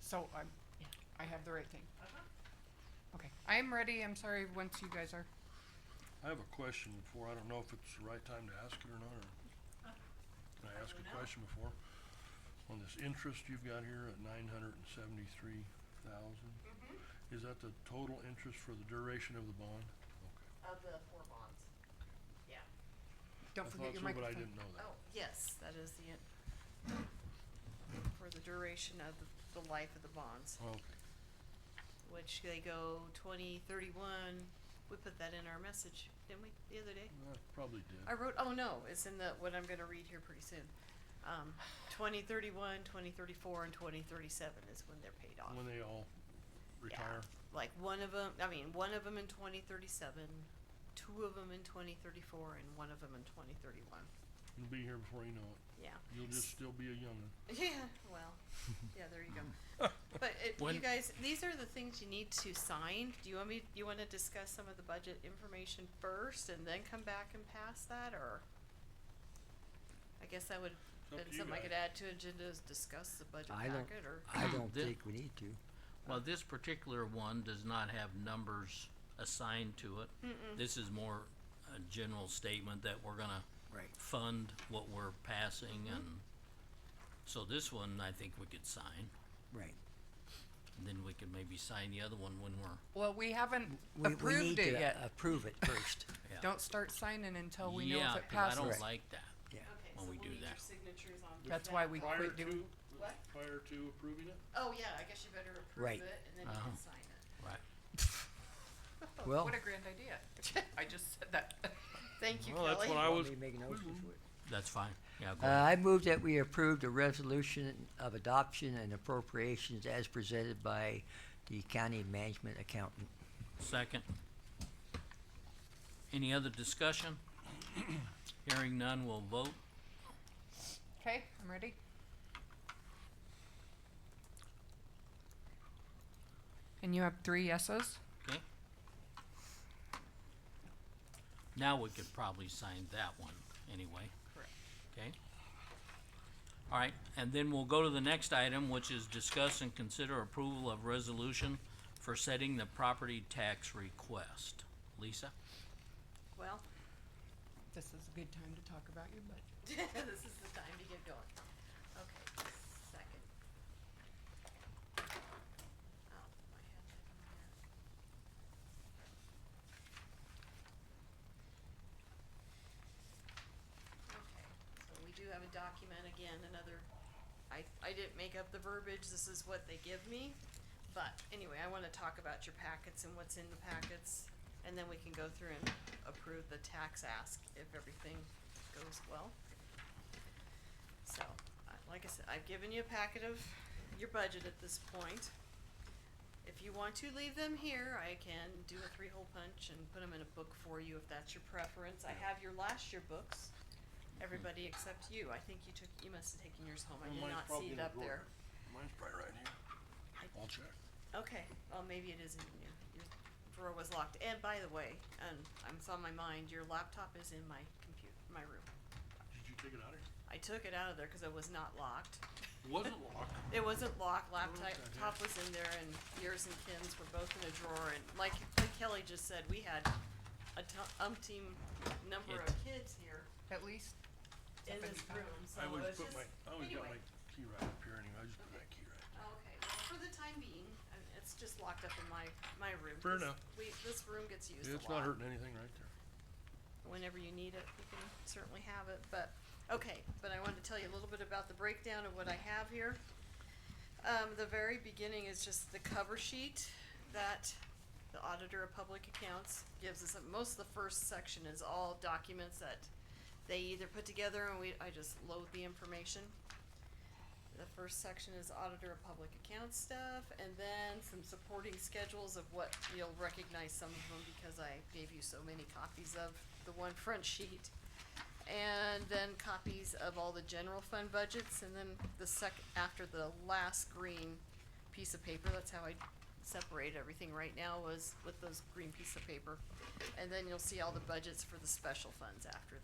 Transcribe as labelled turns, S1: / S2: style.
S1: so I'm, I have the right thing.
S2: Uh-huh.
S1: Okay, I am ready, I'm sorry, once you guys are.
S3: I have a question before, I don't know if it's the right time to ask it or not, or can I ask a question before? On this interest you've got here at nine hundred and seventy-three thousand, is that the total interest for the duration of the bond? Okay.
S2: Of the four bonds. Yeah.
S3: I
S1: Don't forget your
S3: thought so, but I
S1: microphone.
S3: didn't know that.
S2: Oh, yes, that is the, for the duration of the, the life of the bonds,
S1: Oh.
S3: Okay,
S2: which they go twenty, thirty-one. We put that in our message, didn't we, the other day?
S3: Well, I probably did.
S2: I wrote, oh no, it's in the, what I'm gonna read here pretty soon. Um, twenty thirty-one, twenty thirty-four, and twenty thirty-seven is when they're paid off.
S3: When they all retire,
S2: Like one of them, I mean, one of them in twenty thirty-seven, two of them in twenty thirty-four, and one of them in twenty thirty-one,
S3: you'll be here before you know it,
S2: yeah.
S3: you'll just still be a young'un.
S2: Yeah, well, yeah, there you go. But it, you
S4: When-
S2: guys, these are the things you need to sign. Do you want me, you wanna discuss some of the budget information first and then come back and pass that, or? I guess that would,
S3: up
S2: been
S3: to you
S2: something I could
S3: guys.
S2: add to agenda is discuss the budget
S4: I don't-
S2: packet, or?
S4: I don't
S5: Thi-
S4: think we need to.
S5: Well, this particular one does not have numbers assigned to it. This is more a general statement that we're gonna
S4: Right.
S5: fund what we're passing
S1: Mm-hmm.
S5: and, so this one I think we could sign.
S4: Right.
S5: And then we could maybe sign the other one when we're,
S1: Well, we haven't
S4: We, we need
S1: approved it
S4: to
S1: yet.
S4: approve it first.
S5: yeah.
S1: Don't start signing until Oh, we know
S5: Yeah,
S1: if it
S5: 'cause I
S1: passes.
S5: don't
S4: Right.
S5: like that.
S4: Yeah.
S2: Okay,
S5: When so we we'll do need your that.
S2: signatures on.
S1: That's why we quit doing,
S2: What?
S3: prior to approving it?
S2: Oh, yeah, I guess you better approve
S4: Right.
S2: it and then you
S5: Uh-huh.
S2: can sign it.
S5: Right.
S4: Well,
S1: what a grand idea. I just said that.
S2: Thank you,
S3: Well, that's what
S2: Kelly.
S3: I
S4: let
S3: was,
S4: me make notes
S3: Mhm.
S4: before-
S5: That's fine. Yeah, go
S4: Uh,
S5: ahead.
S4: I move that we approve the resolution of adoption and appropriations as presented by the county management accountant.
S5: Second. Any other discussion? Hearing none, we'll vote.
S1: Okay, I'm ready. And you have three yeses?
S5: Okay. Now we could probably sign that one anyway.
S1: Correct.
S5: Okay. All right, and then we'll go to the next item, which is discuss and consider approval of resolution for setting the property tax request. Lisa?
S2: Well,
S1: This is a good time to talk about your budget.
S2: this is the time to get going. Okay, second. Oh, I had that in there. Okay, so we do have a document again, another, I, I didn't make up the verbiage, this is what they give me. But anyway, I wanna talk about your packets and what's in the packets, and then we can go through and approve the tax ask if everything goes well. So, I- like I said, I've given you a packet of your budget at this point. If you want to leave them here, I can do a three-hole punch and put them in a book for you if that's your preference. I have your last year books, everybody except you. I think you took, you must have taken yours home. I did not see it up there.
S3: Mine's probably right here. I'll check.
S2: Okay, well, maybe it isn't in your, your drawer was locked. And by the way, and I'm, it's on my mind, your laptop is in my computer, my room.
S3: Did you take it out of here?
S2: I took it out of there because it was not locked.
S3: Wasn't locked.
S2: It wasn't locked, laptop
S3: okay.
S2: top was in there and yours and Kim's were both in a drawer and like, like Kelly just said, we had a t- umpteen number of kids here
S1: At least
S2: in
S1: Something
S2: this
S1: fun.
S2: room, so
S3: I
S2: it
S3: always
S2: was
S3: put
S2: just,
S3: my, I always got
S2: anyway. oh,
S3: my key right up here anyway, I just put that key right.
S2: Okay, well, for the time being, I mean, it's just locked up in my, my room.
S3: Fair
S2: 'cause
S3: enough.
S2: We, this room gets used a
S3: Yeah,
S2: lot.
S3: It's not hurting anything right there.
S2: whenever you need it, you can certainly have it, but, okay, but I wanted to tell you a little bit about the breakdown of what I have here. Um, the very beginning is just the cover sheet that the Auditor of Public Accounts gives us, and most of the first section is all documents that they either put together and we, I just load the information. The first section is Auditor of Public Accounts stuff, and then some supporting schedules of what, you'll recognize some of them because I gave you so many copies of the one front sheet. And then copies of all the general fund budgets, and then the sec, after the last green piece of paper, that's how I separate everything right now was with those green piece of paper. And then you'll see all the budgets for the special funds after